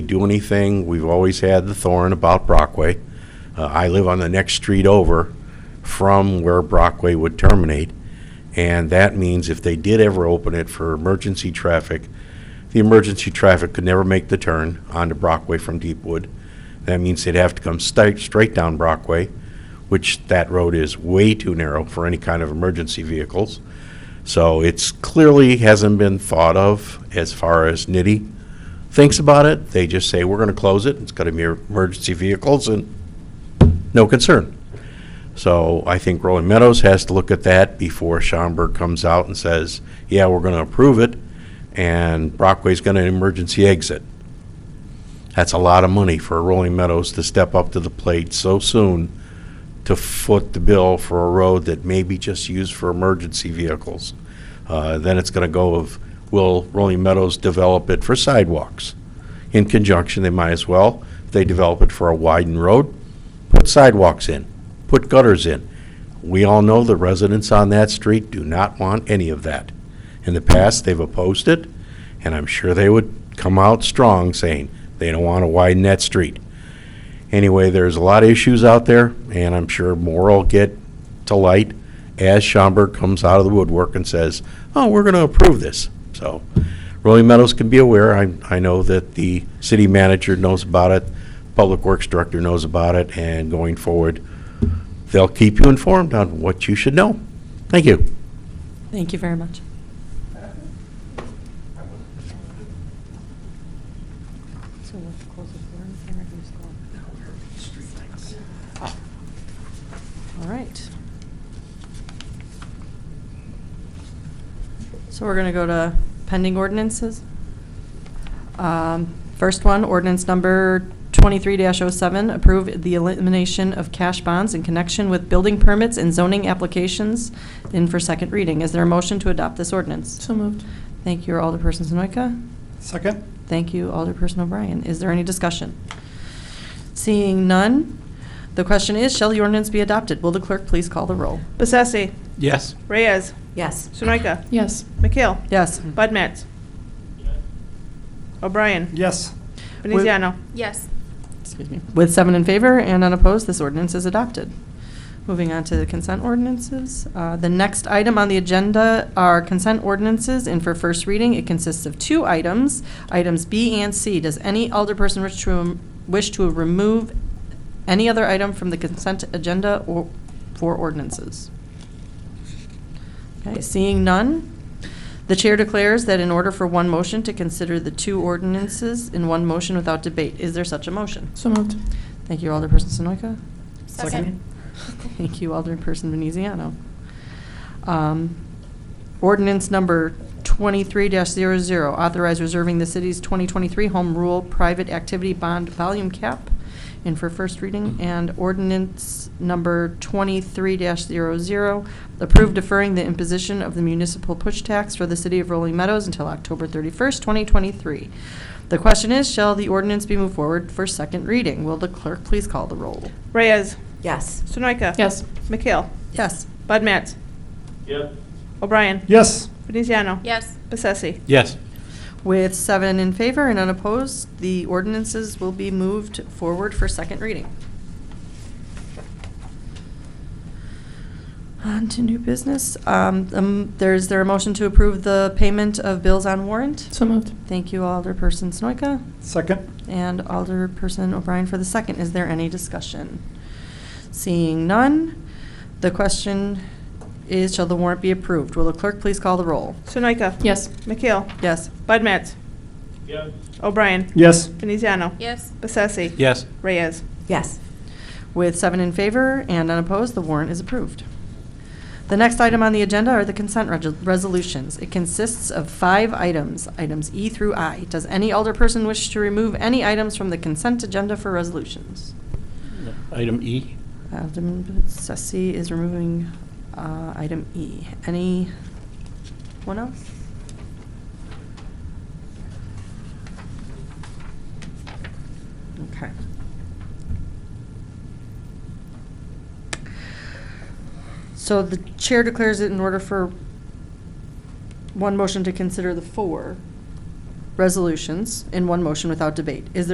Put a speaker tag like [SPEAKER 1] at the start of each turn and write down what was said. [SPEAKER 1] do anything, we've always had the thorn about Brockway. Uh, I live on the next street over from where Brockway would terminate. And that means if they did ever open it for emergency traffic, the emergency traffic could never make the turn onto Brockway from Deepwood. That means they'd have to come straight, straight down Brockway, which that road is way too narrow for any kind of emergency vehicles. So it's clearly hasn't been thought of as far as Nitty thinks about it. They just say, we're going to close it. It's going to be emergency vehicles and no concern. So I think Rolling Meadows has to look at that before Schaumburg comes out and says, yeah, we're going to approve it and Brockway's going to emergency exit. That's a lot of money for Rolling Meadows to step up to the plate so soon to foot the bill for a road that may be just used for emergency vehicles. Uh, Then it's going to go of, will Rolling Meadows develop it for sidewalks? In conjunction, they might as well, if they develop it for a widened road, put sidewalks in, put gutters in. We all know the residents on that street do not want any of that. In the past, they've opposed it, and I'm sure they would come out strong saying they don't want to widen that street. Anyway, there's a lot of issues out there, and I'm sure more will get to light as Schaumburg comes out of the woodwork and says, oh, we're going to approve this. So Rolling Meadows can be aware. I, I know that the city manager knows about it, Public Works Director knows about it, and going forward, they'll keep you informed on what you should know. Thank you.
[SPEAKER 2] Thank you very much. So let's close the floor and Eric is gone. All right. So we're going to go to pending ordinances. Um, First one, ordinance number 23-07, approve the elimination of cash bonds in connection with building permits and zoning applications in for second reading. Is there a motion to adopt this ordinance?
[SPEAKER 3] So moved.
[SPEAKER 2] Thank you, Alderperson Zanoika.
[SPEAKER 3] Second?
[SPEAKER 2] Thank you, Alderperson O'Brien. Is there any discussion? Seeing none, the question is, shall the ordinance be adopted? Will the clerk please call the roll?
[SPEAKER 4] Bessesi.
[SPEAKER 3] Yes.
[SPEAKER 4] Reyes.
[SPEAKER 2] Yes.
[SPEAKER 4] Sunoika.
[SPEAKER 3] Yes.
[SPEAKER 4] McHale.
[SPEAKER 2] Yes.
[SPEAKER 4] Bud Matts. O'Brien.
[SPEAKER 3] Yes.
[SPEAKER 4] Veneziano.
[SPEAKER 5] Yes.
[SPEAKER 2] Excuse me. With seven in favor and unopposed, this ordinance is adopted. Moving on to the consent ordinances. Uh, The next item on the agenda are consent ordinances, and for first reading, it consists of two items, items B and C. Does any alderperson wish to, um, wish to remove any other item from the consent agenda or for ordinances? Okay, seeing none, the chair declares that in order for one motion to consider the two ordinances in one motion without debate, is there such a motion?
[SPEAKER 3] So moved.
[SPEAKER 2] Thank you, Alderperson Sonoyka.
[SPEAKER 5] Second.
[SPEAKER 2] Thank you, Alderperson Veneziano. Um, Ordinance number 23-00, authorize reserving the city's 2023 Home Rule Private Activity Bond Volume Cap, and for first reading, and ordinance number 23-00, approve deferring the imposition of the municipal push tax for the city of Rolling Meadows until October 31st, 2023. The question is, shall the ordinance be moved forward for second reading? Will the clerk please call the roll?
[SPEAKER 4] Reyes.
[SPEAKER 5] Yes.
[SPEAKER 4] Sunoika.
[SPEAKER 3] Yes.
[SPEAKER 4] McHale.
[SPEAKER 2] Yes.
[SPEAKER 4] Bud Matts.
[SPEAKER 6] Yes.
[SPEAKER 4] O'Brien.
[SPEAKER 3] Yes.
[SPEAKER 4] Veneziano.
[SPEAKER 5] Yes.
[SPEAKER 4] Bessesi.
[SPEAKER 6] Yes.
[SPEAKER 2] With seven in favor and unopposed, the ordinances will be moved forward for second reading. On to new business. Um, um, There's, there a motion to approve the payment of bills on warrant?
[SPEAKER 3] So moved.
[SPEAKER 2] Thank you, Alderperson Snoyka,
[SPEAKER 3] Second?
[SPEAKER 2] and Alderperson O'Brien for the second. Is there any discussion? Seeing none, the question is, shall the warrant be approved? Will the clerk please call the roll?
[SPEAKER 4] Sunoika.
[SPEAKER 3] Yes.
[SPEAKER 4] McHale.
[SPEAKER 2] Yes.
[SPEAKER 4] Bud Matts.
[SPEAKER 6] Yes.
[SPEAKER 4] O'Brien.
[SPEAKER 3] Yes.
[SPEAKER 4] Veneziano.
[SPEAKER 5] Yes.
[SPEAKER 4] Bessesi.
[SPEAKER 6] Yes.
[SPEAKER 4] Reyes.
[SPEAKER 5] Yes.
[SPEAKER 2] With seven in favor and unopposed, the warrant is approved. The next item on the agenda are the consent reg- resolutions. It consists of five items, items E through I. Does any alderperson wish to remove any items from the consent agenda for resolutions?
[SPEAKER 6] Item E?
[SPEAKER 2] Alderman Bessesi is removing uh, item E. Anyone else? Okay. So the chair declares it in order for one motion to consider the four resolutions in one motion without debate. Is there